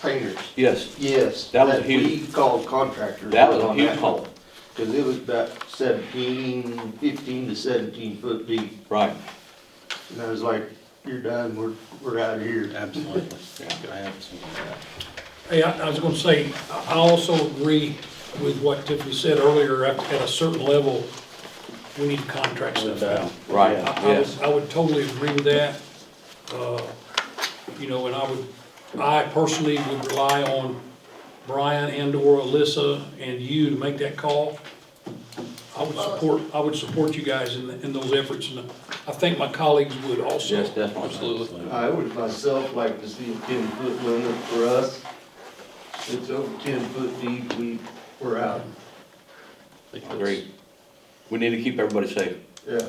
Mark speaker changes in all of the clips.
Speaker 1: painters.
Speaker 2: Yes,
Speaker 1: Yes.
Speaker 2: That was a
Speaker 1: We called contractors.
Speaker 2: that was a
Speaker 1: on
Speaker 2: huge
Speaker 1: one.
Speaker 2: hole,
Speaker 1: Cause it was about seventeen, fifteen to seventeen foot deep.
Speaker 2: right.
Speaker 1: And I was like, you're done, we're, we're out of here.
Speaker 3: Absolutely, I absolutely.
Speaker 4: Hey, I I was gonna say, I I also agree with what Tiffany said earlier, at at a certain level, we need to contract stuff out.
Speaker 2: Right,
Speaker 4: I- I
Speaker 2: yes.
Speaker 4: would- I would totally agree with that. Uh, You know, and I would, I personally would rely on Brian and/or Alyssa and you to make that call. I would support, I would support you guys in, in those efforts, and I think my colleagues would also.
Speaker 2: Yes, definitely.
Speaker 4: Absolutely.
Speaker 1: I would myself like to see a ten foot limit for us. If it's over ten foot deep, we, we're out.
Speaker 2: Agreed. We need to keep everybody safe,
Speaker 1: Yeah,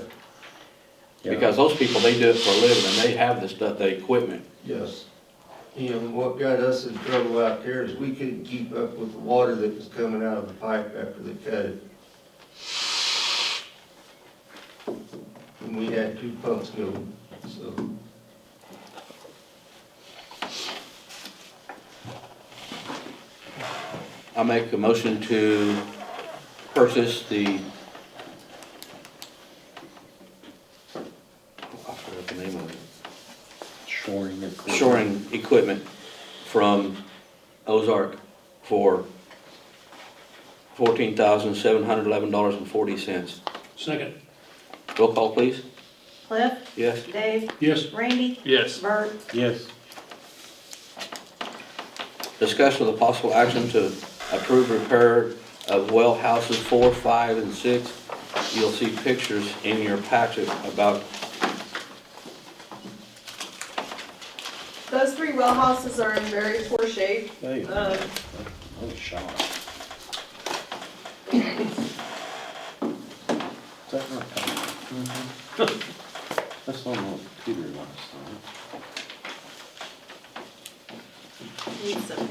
Speaker 2: because those people, they do it for a living, and they have the stuff, the equipment.
Speaker 1: yes. And what got us in trouble out there is we couldn't keep up with the water that was coming out of the pipe after they cut it. And we had two pumps going, so.
Speaker 2: I make a motion to purchase the. I forgot the name of it.
Speaker 3: Shoring your. crew.
Speaker 2: Shoring equipment from Ozark for fourteen thousand seven hundred eleven dollars and forty cents.
Speaker 4: Second,
Speaker 2: Roll call, please.
Speaker 5: Cliff,
Speaker 2: Yes?
Speaker 5: Dave,
Speaker 4: yes,
Speaker 5: Randy,
Speaker 6: Yes,
Speaker 5: Bert,
Speaker 3: Yes,
Speaker 2: Discussion of the possible action to approve repair of well houses four, five, and six. You'll see pictures in your packet about,
Speaker 7: Those three well houses are in very poor shape.
Speaker 3: hey,
Speaker 2: Uh.
Speaker 5: Uh,
Speaker 7: Um,
Speaker 3: holy shot. Is that not?
Speaker 2: Mm-hmm.
Speaker 3: That's not what Peter wants, huh?
Speaker 7: need some.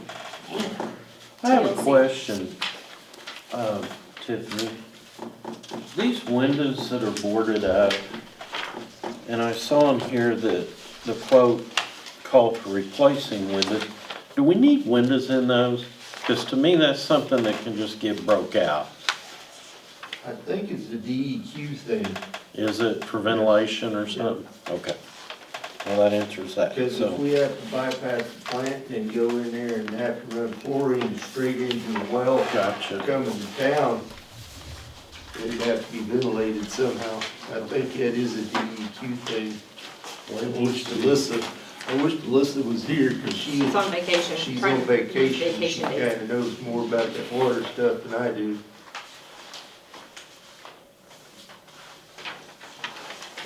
Speaker 3: I have a question, uh, Tiffany. These windows that are boarded up, and I saw in here that the quote called for replacing windows. Do we need windows in those? Because to me, that's something that can just get broke out.
Speaker 1: I think it's the DEQ thing,
Speaker 3: Is it for ventilation or something? Okay. Well, that answers that,
Speaker 1: because if
Speaker 3: so,
Speaker 1: we have to bypass the plant and go in there and have to run chlorine straight into the well
Speaker 3: gotcha.
Speaker 1: coming to town, it'd have to be ventilated somehow. I think that is a DEQ thing. I wish Alyssa, I wish Alyssa was here, because she,
Speaker 5: she's on vacation.
Speaker 1: she's
Speaker 5: trying
Speaker 1: on
Speaker 5: to-
Speaker 1: vacation. She
Speaker 5: Vacation days.
Speaker 1: kinda knows more about that water stuff than I do.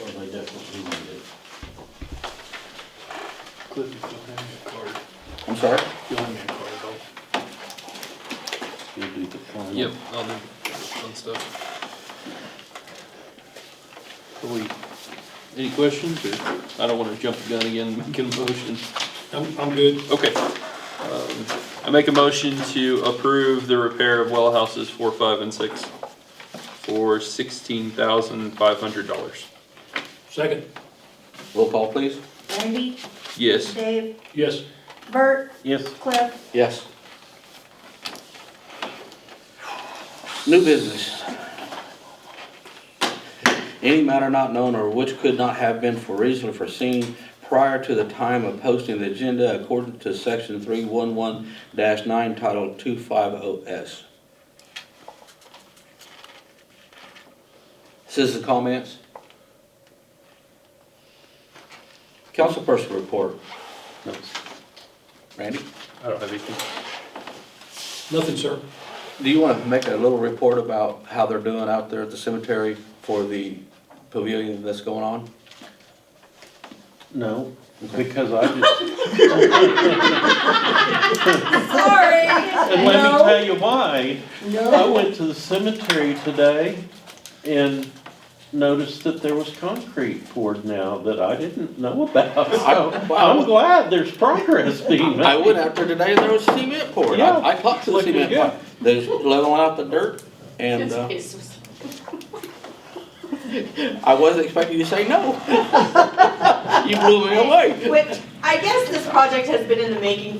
Speaker 3: Well, they definitely need it.
Speaker 6: Cliff, if you'll hand me a card,
Speaker 2: I'm sorry?
Speaker 6: you'll hand me a card,
Speaker 3: You'll do the final.
Speaker 6: I'll. Yep, I'll do fun stuff. Are we, any questions, or, I don't wanna jump the gun again, and make a motion.
Speaker 4: I'm, I'm good.
Speaker 6: Okay. Um, I make a motion to approve the repair of well houses four, five, and six for sixteen thousand five hundred dollars.
Speaker 4: Second,
Speaker 2: Roll call, please.
Speaker 5: Randy,
Speaker 6: Yes,
Speaker 5: Dave,
Speaker 4: yes,
Speaker 5: Bert,
Speaker 3: Yes,
Speaker 5: Cliff,
Speaker 2: Yes. New business. Any matter not known or which could not have been for reason foreseen prior to the time of posting the agenda according to section three one one nine title two five O S. Citizen comments? Councilperson report,
Speaker 3: no,
Speaker 2: Randy?
Speaker 6: I don't have anything.
Speaker 4: nothing, sir.
Speaker 2: Do you want to make a little report about how they're doing out there at the cemetery for the pavilion that's going on?
Speaker 3: no, because I just,
Speaker 7: Sorry.
Speaker 3: And let me tell you why. I
Speaker 7: No.
Speaker 3: went to the cemetery today and noticed that there was concrete poured now that I didn't know about. So I'm glad there's progress being
Speaker 2: I
Speaker 3: made.
Speaker 2: went out there today, there was cement poured.
Speaker 3: Yeah.
Speaker 2: I I talked to the
Speaker 3: Looking
Speaker 2: cement.
Speaker 3: good.
Speaker 2: plant. They're leveling out the dirt and uh, I wasn't expecting you to say no. You blew me away.
Speaker 5: which, I guess this project has been in the making